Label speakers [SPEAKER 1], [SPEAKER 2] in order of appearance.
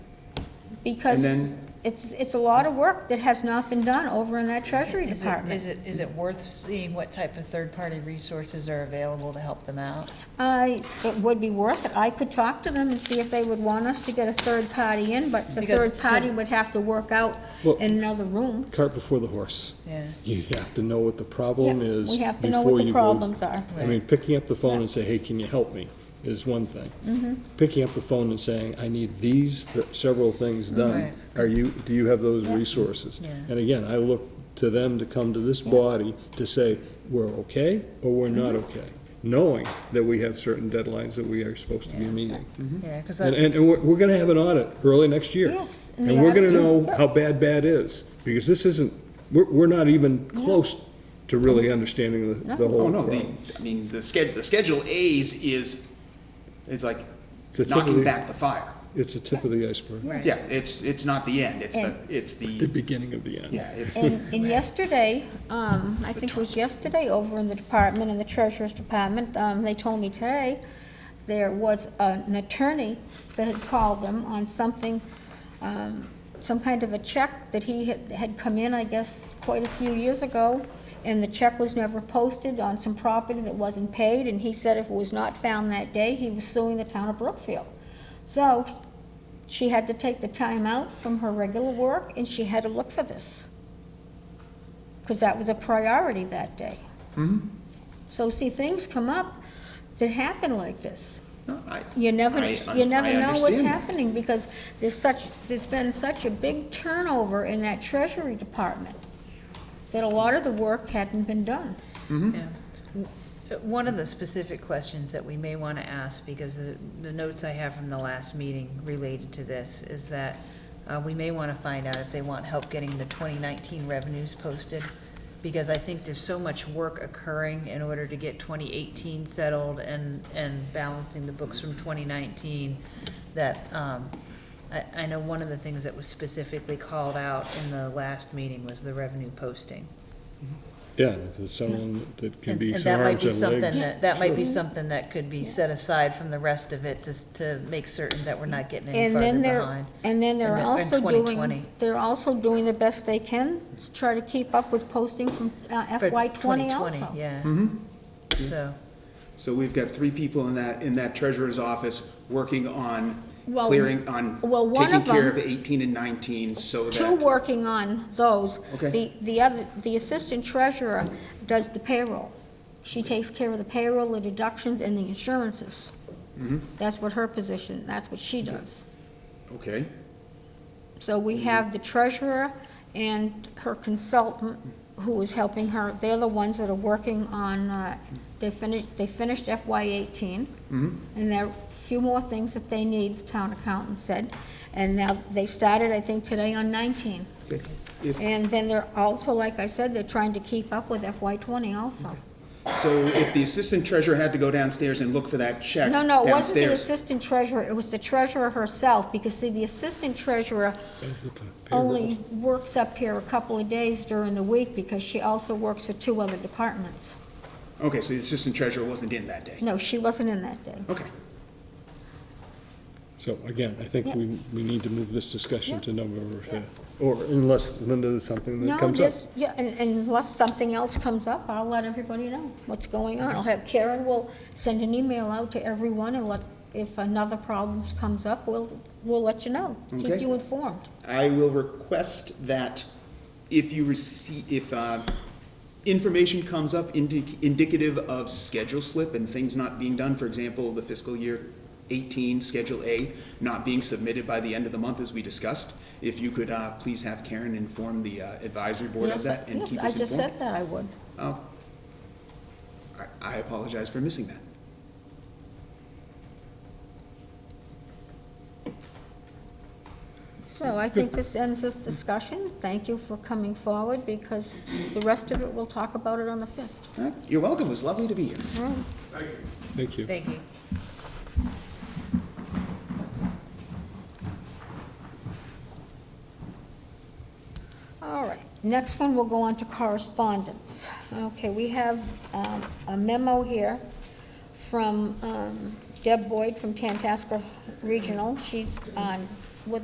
[SPEAKER 1] because
[SPEAKER 2] And then-
[SPEAKER 1] it's, it's a lot of work that has not been done over in that Treasury
[SPEAKER 3] Is it,
[SPEAKER 1] Department.
[SPEAKER 3] is it, is it worth seeing what type of third-party resources are available to help them out?
[SPEAKER 1] I, it would be worth it. I could talk to them and see if they would want us to get a third party in, but the
[SPEAKER 3] Because-
[SPEAKER 1] third party
[SPEAKER 3] because-
[SPEAKER 1] would have to work out
[SPEAKER 4] Well-
[SPEAKER 1] in another room.
[SPEAKER 4] Cart before the horse.
[SPEAKER 3] Yeah.
[SPEAKER 4] You have to know what the problem
[SPEAKER 1] Yeah,
[SPEAKER 4] is.
[SPEAKER 1] we have to know what
[SPEAKER 4] before
[SPEAKER 1] the
[SPEAKER 4] you go-
[SPEAKER 1] problems are.
[SPEAKER 4] I mean, picking up the phone and say, hey, can you help me, is one thing.
[SPEAKER 1] Mm-hmm.
[SPEAKER 4] Picking up the phone and saying, I need these th- several things done.
[SPEAKER 3] Right.
[SPEAKER 4] Are you, do you have those resources?
[SPEAKER 3] Yeah.
[SPEAKER 4] And again, I look to them to come to this body to say, we're okay or we're not
[SPEAKER 1] Mm-hmm.
[SPEAKER 4] okay, knowing that we have certain deadlines that we are supposed to be meeting.
[SPEAKER 3] Yeah, because
[SPEAKER 4] And, and and we're, we're gonna have an audit early next year.
[SPEAKER 1] Yes, and the
[SPEAKER 4] And we're gonna
[SPEAKER 1] audit-
[SPEAKER 4] know how bad bad is, because this isn't, we're, we're not even close to really understanding the, the
[SPEAKER 2] Oh,
[SPEAKER 4] whole
[SPEAKER 2] no, the,
[SPEAKER 4] problem.
[SPEAKER 2] I mean, the sched, the Schedule A's is, is like
[SPEAKER 4] So typically-
[SPEAKER 2] knocking back the fire.
[SPEAKER 4] It's the tip of the iceberg,
[SPEAKER 3] Right.
[SPEAKER 2] Yeah, it's, it's not the end, it's the, it's
[SPEAKER 4] the
[SPEAKER 2] the,
[SPEAKER 4] beginning of the end.
[SPEAKER 2] yeah, it's,
[SPEAKER 1] And, and yesterday, um, I think it was yesterday, over in the department, in the treasurer's department, um, they told me today, there was an attorney that had called them on something, um, some kind of a check that he had, had come in, I guess, quite a few years ago, and the check was never posted on some property that wasn't paid, and he said if it was not found that day, he was suing the town of Brookfield. So, she had to take the time out from her regular work, and she had to look for this because that was a priority that day.
[SPEAKER 2] Mm-hmm.
[SPEAKER 1] So see, things come up that happen like this.
[SPEAKER 2] no, I-
[SPEAKER 1] You never,
[SPEAKER 2] I-
[SPEAKER 1] you never
[SPEAKER 2] I
[SPEAKER 1] know what's
[SPEAKER 2] understand.
[SPEAKER 1] happening because there's such, there's been such a big turnover in that treasury department that a lot of the work hadn't been done.
[SPEAKER 3] Yeah. One of the specific questions that we may want to ask, because the, the notes I have from the last meeting related to this, is that uh, we may want to find out if they want help getting the 2019 revenues posted, because I think there's so much work occurring in order to get 2018 settled and, and balancing the books from 2019, that, um, I, I know one of the things that was specifically called out in the last meeting was the revenue posting.
[SPEAKER 4] Yeah, and if there's someone that can
[SPEAKER 3] And
[SPEAKER 4] be
[SPEAKER 3] and
[SPEAKER 4] some
[SPEAKER 3] that might
[SPEAKER 4] arms
[SPEAKER 3] be
[SPEAKER 4] and
[SPEAKER 3] something
[SPEAKER 4] legs.
[SPEAKER 3] that That might be something that could be set aside from the rest of it, just to make certain that we're not getting any
[SPEAKER 1] And
[SPEAKER 3] farther
[SPEAKER 1] then
[SPEAKER 3] behind.
[SPEAKER 1] they're, and then they're
[SPEAKER 3] in- in
[SPEAKER 1] also
[SPEAKER 3] 2020.
[SPEAKER 1] doing, they're also doing the best they can to try to keep up with posting from uh,
[SPEAKER 3] For
[SPEAKER 1] FY twenty
[SPEAKER 3] 2020,
[SPEAKER 1] also.
[SPEAKER 3] Yeah.
[SPEAKER 4] Mm-hmm.
[SPEAKER 3] So,
[SPEAKER 2] So we've got three people in that, in that treasurer's office working on
[SPEAKER 1] Well,
[SPEAKER 2] clearing, on
[SPEAKER 1] well, one
[SPEAKER 2] taking
[SPEAKER 1] of
[SPEAKER 2] care
[SPEAKER 1] them-
[SPEAKER 2] of eighteen and nineteen so
[SPEAKER 1] Two
[SPEAKER 2] that,
[SPEAKER 1] working on those.
[SPEAKER 2] Okay.
[SPEAKER 1] The, the other, the assistant treasurer does the payroll. She takes care of the payroll, the deductions, and the insurances. That's what her position, that's what she does.
[SPEAKER 2] okay,
[SPEAKER 1] So we have the treasurer and her consultant who is helping her. They're the ones that are working on, uh, they finished, they finished FY 18
[SPEAKER 2] Mm-hmm.
[SPEAKER 1] And there are a few more things that they need, the town accountant said. And now, they started, I think, today on nineteen.
[SPEAKER 2] okay. If,
[SPEAKER 1] And then they're also, like I said, they're trying to keep up with FY twenty also.
[SPEAKER 2] so if the assistant treasurer had to go downstairs and look for that check
[SPEAKER 1] No, no, it wasn't the
[SPEAKER 2] downstairs.
[SPEAKER 1] assistant treasurer, it was the treasurer herself, because see, the assistant treasurer
[SPEAKER 4] That's the p- payroll.
[SPEAKER 1] only works up here a couple of days during the week, because she also works for two other departments.
[SPEAKER 2] Okay, so the assistant treasurer wasn't in that day,
[SPEAKER 1] No, she wasn't in that day.
[SPEAKER 2] okay.
[SPEAKER 4] So again, I think
[SPEAKER 1] Yeah.
[SPEAKER 4] we, we need to move this discussion to November
[SPEAKER 1] Yeah.
[SPEAKER 4] fifth, or unless Linda, there's something that
[SPEAKER 1] No,
[SPEAKER 4] comes up.
[SPEAKER 1] just, yeah, and and unless something else comes up, I'll let everybody know what's going on. I'll have Karen will send an email out to everyone, and let, if another problem comes up, we'll, we'll let you know. Keep
[SPEAKER 2] Okay.
[SPEAKER 1] you informed.
[SPEAKER 2] I will request that if you receive, if uh, information comes up indi- indicative of schedule slip and things not being done, for example, the fiscal year 18, Schedule A, not being submitted by the end of the month as we discussed, if you could uh, please have Karen inform the uh, advisory board of
[SPEAKER 1] Yes,
[SPEAKER 2] that and
[SPEAKER 1] yes,
[SPEAKER 2] keep us
[SPEAKER 1] I just
[SPEAKER 2] informed.
[SPEAKER 1] said that I would.
[SPEAKER 2] Oh, I- I apologize for missing that.
[SPEAKER 1] So I think this ends this discussion. Thank you for coming forward, because the rest of it, we'll talk about it on the 5th.
[SPEAKER 2] Uh, You're welcome, it was lovely to be here.
[SPEAKER 4] Thank you.
[SPEAKER 3] thank you.
[SPEAKER 1] All right, next one, we'll go on to correspondence. Okay, we have um, a memo here from um, Deb Boyd from Tantasco Regional. She's on